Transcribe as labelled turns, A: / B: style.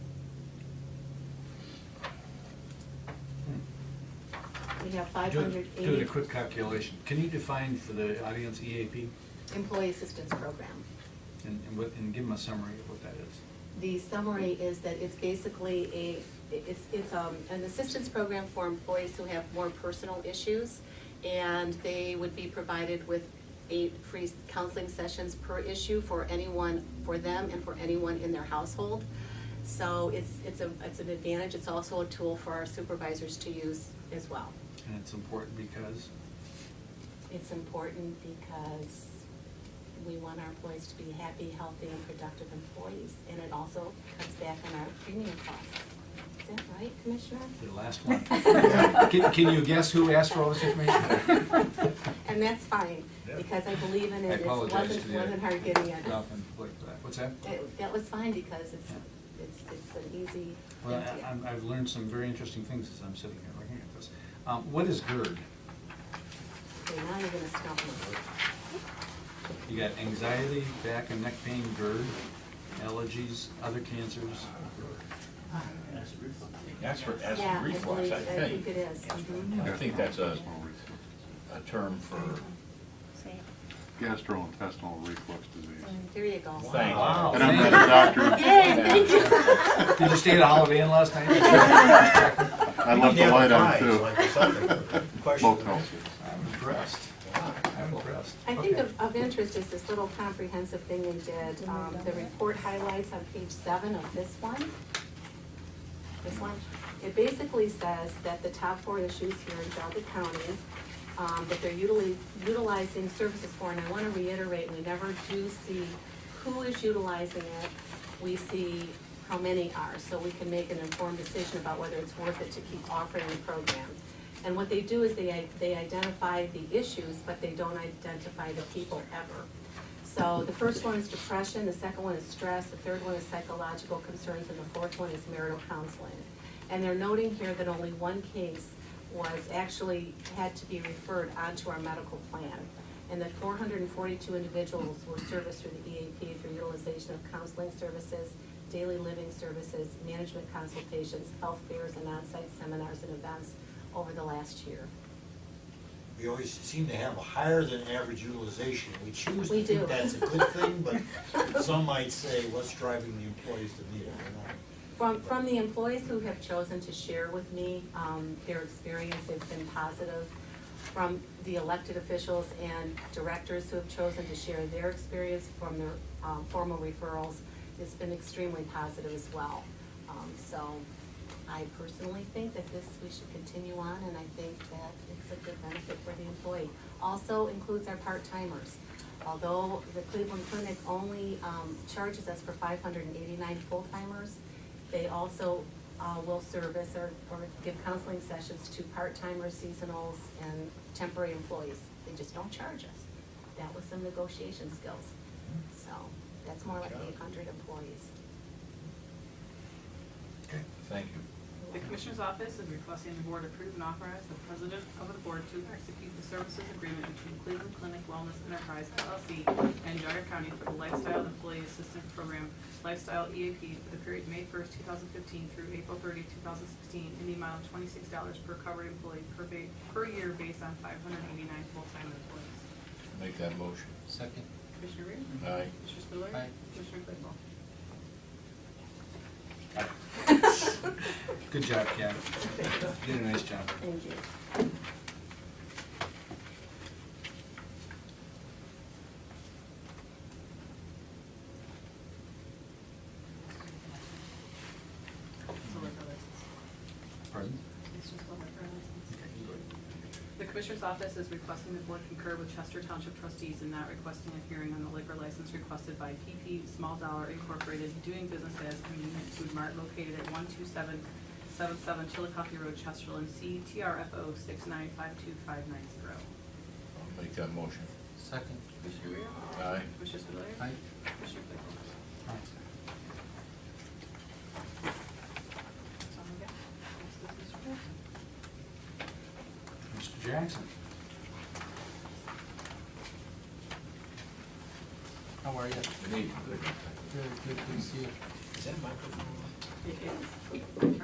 A: we have
B: Do- Doing a
A: 580
B: quick calculation, can you define for the audience EAP
A: employee assistance program.
B: and, and what, and give them a summary of what that is?
A: The summary is that it's basically a, it's, it's um, an assistance program for employees who have more personal issues, and they would be provided with eight free counseling sessions per issue for anyone, for them and for anyone in their household. So it's, it's a, it's an advantage, it's also a tool for our supervisors to use as well.
B: And it's important because,
A: It's important because we want our employees to be happy, healthy, and productive employees, and it also cuts back on our premium costs. Is that right, Commissioner?
B: the last one. Can, can you guess who asked for all this information?
A: And that's fine,
B: Yeah.
A: because I believe in
B: I
A: it, it
B: apologize
A: wasn't,
B: to the-
A: wasn't hard getting it.
B: Ralph and Blake for that. What's that?
A: That, that was fine, because it's, it's, it's an easy.
B: Well,
A: thing to
B: I,
A: get.
B: I'm- I've learned some very interesting things as I'm sitting here looking at this. Um, what is GERD?
A: Okay, now you're gonna stop me.
B: You got anxiety, back and neck pain, GERD, allergies, other cancers.
C: That's for acid
A: Yeah,
C: reflux,
A: believe-
C: I
A: I think
C: think.
A: it is. mhm.
C: I think that's a, a term for,
D: Gastrointestinal reflux disease.
A: There you go.
C: thank you.
B: Wow.
D: And I'm not a doctor.
A: Yay, thank you.
B: Did you stay at a Holiday Inn last night?
D: I left the light on too. Motel.
B: I'm impressed. I'm impressed.
A: I think
B: Okay.
A: of, of interest is this little comprehensive thing they did, um, the report highlights on page seven of this one. This one, it basically says that the top four issues here in Delta County, um, that they're utili- utilizing services for, and I wanna reiterate, we never do see who is utilizing it. We see how many are, so we can make an informed decision about whether it's worth it to keep offering the program. And what they do is they, they identify the issues, but they don't identify the people ever. So the first one is depression, the second one is stress, the third one is psychological concerns, and the fourth one is marital counseling. And they're noting here that only one case was actually, had to be referred onto our medical plan. And that four hundred and forty-two individuals were serviced through the EAP through utilization of counseling services, daily living services, management consultations, health fairs, and on-site seminars and events over the last year.
E: We always seem to have a higher than average utilization. We choose
A: We
E: to
A: do.
E: think that's a good thing, but some might say, what's driving the employees to need it? We're not-
A: From, from the employees who have chosen to share with me, um, their experience, they've been positive. From the elected officials and directors who have chosen to share their experience from their, um, formal referrals, it's been extremely positive as well. Um, so I personally think that this, we should continue on, and I think that it's a good benefit for the employee. Also includes our part-timers. Although the Cleveland Clinic only, um, charges us for five hundred and eighty-nine full-timers, they also uh, will service or, or give counseling sessions to part-timers, seasonals, and temporary employees. They just don't charge us. That was some negotiation skills. So that's more like eight hundred employees.
C: Thank you.
F: The Commissioner's Office is requesting the Board approve and authorize the President of the Board to execute the services agreement between Cleveland Clinic Wellness Enterprise LLC and Jogga County for the Lifestyle Employee Assistance Program Lifestyle EAP for the period May first, two thousand fifteen through April 30, 2016, in the amount of twenty-six dollars per covered employee per ba- per year based on five hundred eighty-nine full-time employees.
C: Make that motion.
G: Second.
F: Commissioner Reer?
C: Aye.
F: Commissioner Spiller?
G: Aye.
F: Commissioner Claypool?
B: Good job, Ken. You Did a nice job.
A: Thank you.
F: So liquor license.
B: Pardon?
F: It's just a liquor license.
B: Okay, go ahead.
F: The Commissioner's Office is requesting the Board concur with Chester Township trustees in not requesting a hearing on the liquor license requested by PP Small Dollar Incorporated doing business as Convenient Food Mart located at one two seven seven seven Chillicothe Road, Chesterland, C TRFO six nine five two five nine zero.
C: I'll make that motion.
G: Second.
F: Commissioner Rea?
C: Aye.
F: Commissioner Spudler?
G: Aye.
F: Commissioner Claypool?
B: All right.
F: That's all I got. This is
B: Mr.
F: Mr. Wilson.
B: Jackson,
G: How are you?
C: Need.
G: Good, good to see you.
E: Is that microphone on?
F: It is.